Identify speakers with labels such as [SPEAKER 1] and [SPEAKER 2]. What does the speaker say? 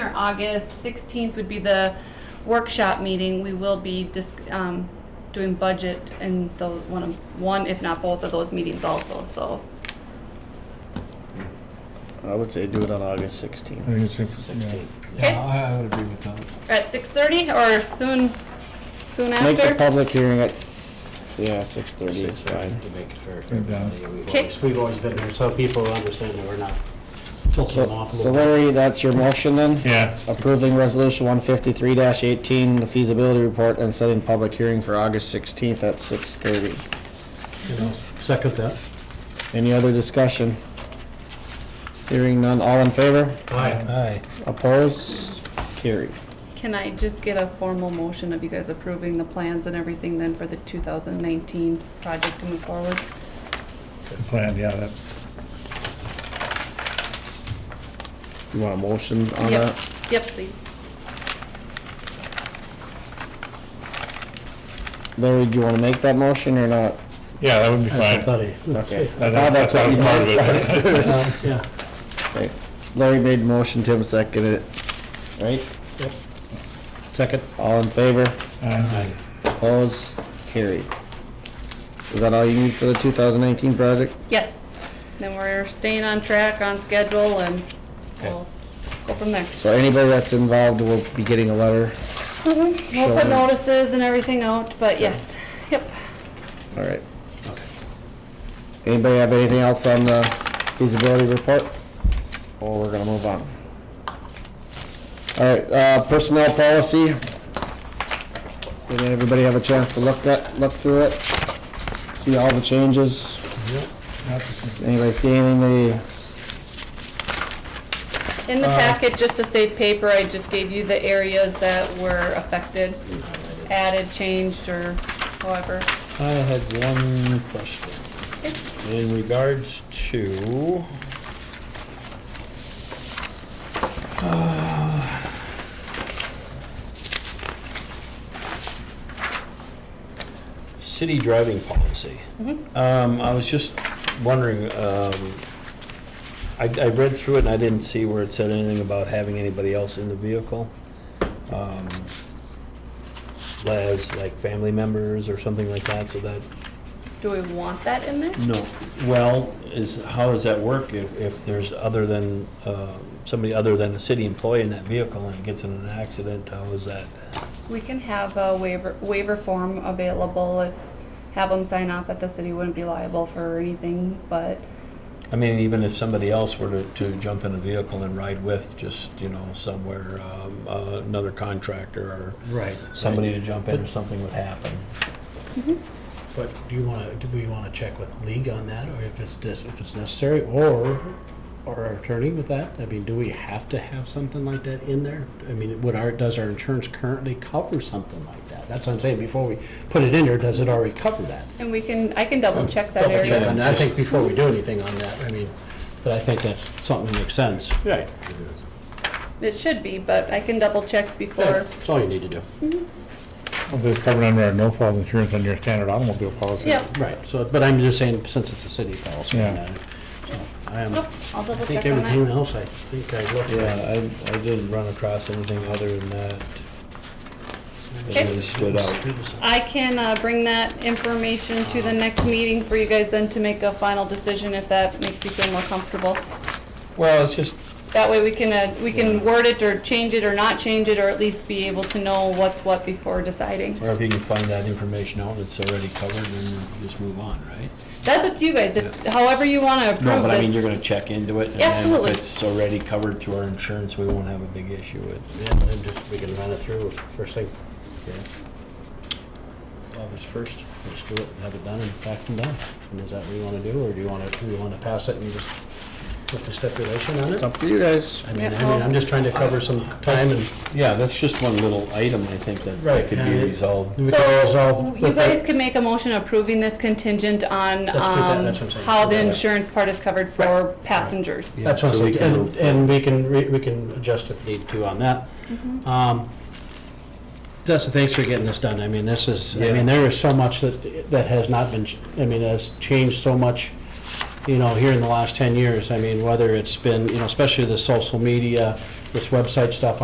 [SPEAKER 1] August 16th would be the workshop meeting. We will be dis- um, doing budget in the, one, of- one, if not both of those meetings also, so.
[SPEAKER 2] I would say do it on August sixteenth.
[SPEAKER 3] think it's in- yeah.
[SPEAKER 4] Sixteen.
[SPEAKER 1] Okay.
[SPEAKER 5] Yeah, I I would agree with that.
[SPEAKER 1] At 6:30 or soon, soon
[SPEAKER 2] Make the
[SPEAKER 1] after?
[SPEAKER 2] public hearing at, s- yeah, six thirty is
[SPEAKER 4] Six
[SPEAKER 2] fine.
[SPEAKER 4] to make it fair for
[SPEAKER 3] Turn down.
[SPEAKER 4] everybody. We've
[SPEAKER 1] Okay.
[SPEAKER 4] always- We've always been there, so people understand that we're not tilting them
[SPEAKER 2] So
[SPEAKER 4] off
[SPEAKER 2] so
[SPEAKER 4] a little bit.
[SPEAKER 2] Larry, that's your motion then?
[SPEAKER 3] Yeah,
[SPEAKER 2] Approving resolution one fifty-three eighteen, the feasibility report and setting public hearing for August sixteenth at six thirty.
[SPEAKER 4] You know, Second that.
[SPEAKER 2] Any other discussion? Hearing none, all in favor?
[SPEAKER 4] Aye.
[SPEAKER 5] Aye.
[SPEAKER 2] Opposed? Carried.
[SPEAKER 1] Can I just get a formal motion of you guys approving the plans and everything then for the 2019 project to move forward?
[SPEAKER 3] the plan, yeah, that,
[SPEAKER 2] You want a motion on
[SPEAKER 1] Yep.
[SPEAKER 2] that?
[SPEAKER 1] Yep, please.
[SPEAKER 2] Larry, do you wanna make that motion or not?
[SPEAKER 3] yeah, that would be fine.
[SPEAKER 4] That's funny.
[SPEAKER 2] Okay.
[SPEAKER 3] I thought
[SPEAKER 2] that's
[SPEAKER 3] that
[SPEAKER 2] what
[SPEAKER 3] was
[SPEAKER 2] you
[SPEAKER 3] part of
[SPEAKER 2] meant.
[SPEAKER 3] it. but-
[SPEAKER 4] Uh, Yeah.
[SPEAKER 2] Okay. Larry made the motion, Tim seconded it. Right?
[SPEAKER 4] Yep. Second.
[SPEAKER 2] All in favor?
[SPEAKER 3] Uh,
[SPEAKER 4] Aye.
[SPEAKER 2] Opposed? Carried. Is that all you need for the two thousand nineteen project?
[SPEAKER 1] Yes, then we're staying on track, on schedule, and we'll go from there.
[SPEAKER 2] So anybody that's involved will be getting a letter.
[SPEAKER 1] We'll
[SPEAKER 2] Sure.
[SPEAKER 1] put Mm-hmm. notices and everything out, but yes, yep.
[SPEAKER 2] All right. Anybody have anything else on the feasibility report? Or we're gonna move on? All right, uh, personnel policy. Did everybody have a chance to look at, look through it? See all the changes?
[SPEAKER 3] not the same.
[SPEAKER 2] Anybody see anything they,
[SPEAKER 1] In
[SPEAKER 6] Uh,
[SPEAKER 1] the packet, just to save paper, I just gave you the areas that were affected, added, changed, or however.
[SPEAKER 4] I had one question. In regards to. Uh, City driving policy. Um, I was just wondering, um, I, I read through it and I didn't see where it said anything about having anybody else in the vehicle. Um, as like family members or something like that, so that.
[SPEAKER 1] Do we want that in there?
[SPEAKER 4] No. Well, is, how does that work if, if there's other than, uh, somebody other than a city employee in that vehicle and gets in an accident, how is that?
[SPEAKER 1] We can have a waiver, waiver form available, if- have them sign off that the city wouldn't be liable for anything, but
[SPEAKER 4] I mean, even if somebody else were to, to jump in a vehicle and ride with, just, you know, somewhere, um, uh, another contractor or
[SPEAKER 6] Right.
[SPEAKER 4] somebody to jump in or something would happen.
[SPEAKER 6] But do you want to, do we want to check with league on that, or if it's, dis- if it's necessary, or, or our attorney with that? I mean, do we have to have something like that in there? I mean, would our, does our insurance currently cover something like that? That's what I'm saying, before we put it in there, does it already cover that?
[SPEAKER 1] And we can, I can double check that
[SPEAKER 6] Double check
[SPEAKER 1] area.
[SPEAKER 6] on that, I think before we do anything on that, I mean, but I think that's something that makes sense.
[SPEAKER 4] Right.
[SPEAKER 1] It should be, but I can double check before.
[SPEAKER 6] That's all you need to do.
[SPEAKER 3] Well, They're covered under our no-fault insurance on your standard automobile policy.
[SPEAKER 1] Yeah,
[SPEAKER 6] Right, so, but I'm just saying, since it's a city policy,
[SPEAKER 3] Yeah.
[SPEAKER 6] uh, so I am,
[SPEAKER 1] Nope,
[SPEAKER 6] I
[SPEAKER 1] I'll double
[SPEAKER 6] think
[SPEAKER 1] check on
[SPEAKER 6] everything
[SPEAKER 1] that.
[SPEAKER 6] else, I think I looked at.
[SPEAKER 4] Yeah, I, I didn't run across anything other than that.
[SPEAKER 1] Okay.
[SPEAKER 4] That really stood out.
[SPEAKER 1] I can uh, bring that information to the next meeting for you guys then to make a final decision if that makes you feel more comfortable.
[SPEAKER 4] Well, it's just,
[SPEAKER 1] That way we can, uh, we can word it or change it or not change it, or at least be able to know what's what before deciding.
[SPEAKER 4] Or if you can find that information out, it's already covered, then just move on, right?
[SPEAKER 1] That's up to you guys, if, however you wanna
[SPEAKER 4] No,
[SPEAKER 1] approve
[SPEAKER 4] but I mean, you're
[SPEAKER 1] this.
[SPEAKER 4] gonna check into it, and
[SPEAKER 1] Yeah,
[SPEAKER 4] then
[SPEAKER 1] absolutely.
[SPEAKER 4] if it's already covered through our insurance, we won't have a big issue with.
[SPEAKER 6] Yeah, and then just, we can run it through first thing, August first, just do it, and have it done and packed and done. And is that what you wanna do, or do you wanna, do you wanna pass it and just put the stipulation on
[SPEAKER 2] it's
[SPEAKER 6] it?
[SPEAKER 2] up to you guys.
[SPEAKER 6] I mean, I mean, I'm just trying to cover some time and
[SPEAKER 4] Yeah, that's just one little item, I think, that
[SPEAKER 6] Right,
[SPEAKER 4] could
[SPEAKER 6] and
[SPEAKER 4] be
[SPEAKER 6] it-
[SPEAKER 4] resolved.
[SPEAKER 6] we can
[SPEAKER 1] So,
[SPEAKER 6] resolve.
[SPEAKER 1] you
[SPEAKER 6] with that.
[SPEAKER 1] guys can make a motion approving this contingent on,
[SPEAKER 6] Let's do that,
[SPEAKER 1] um,
[SPEAKER 6] that's what I'm saying.
[SPEAKER 1] how the
[SPEAKER 6] Yeah.
[SPEAKER 1] insurance part is covered for passengers.
[SPEAKER 6] That's what
[SPEAKER 4] So we
[SPEAKER 6] I'm saying,
[SPEAKER 4] can
[SPEAKER 6] and,
[SPEAKER 4] move
[SPEAKER 6] and we can, re- we can adjust if need to on that. Um, Dustin, thanks for getting this done, I mean, this is, I
[SPEAKER 4] Yeah.
[SPEAKER 6] mean, there is so much that, that has not been, ch- I mean, has changed so much, you know, here in the last ten years, I mean, whether it's been, you know, especially the social media, this website stuff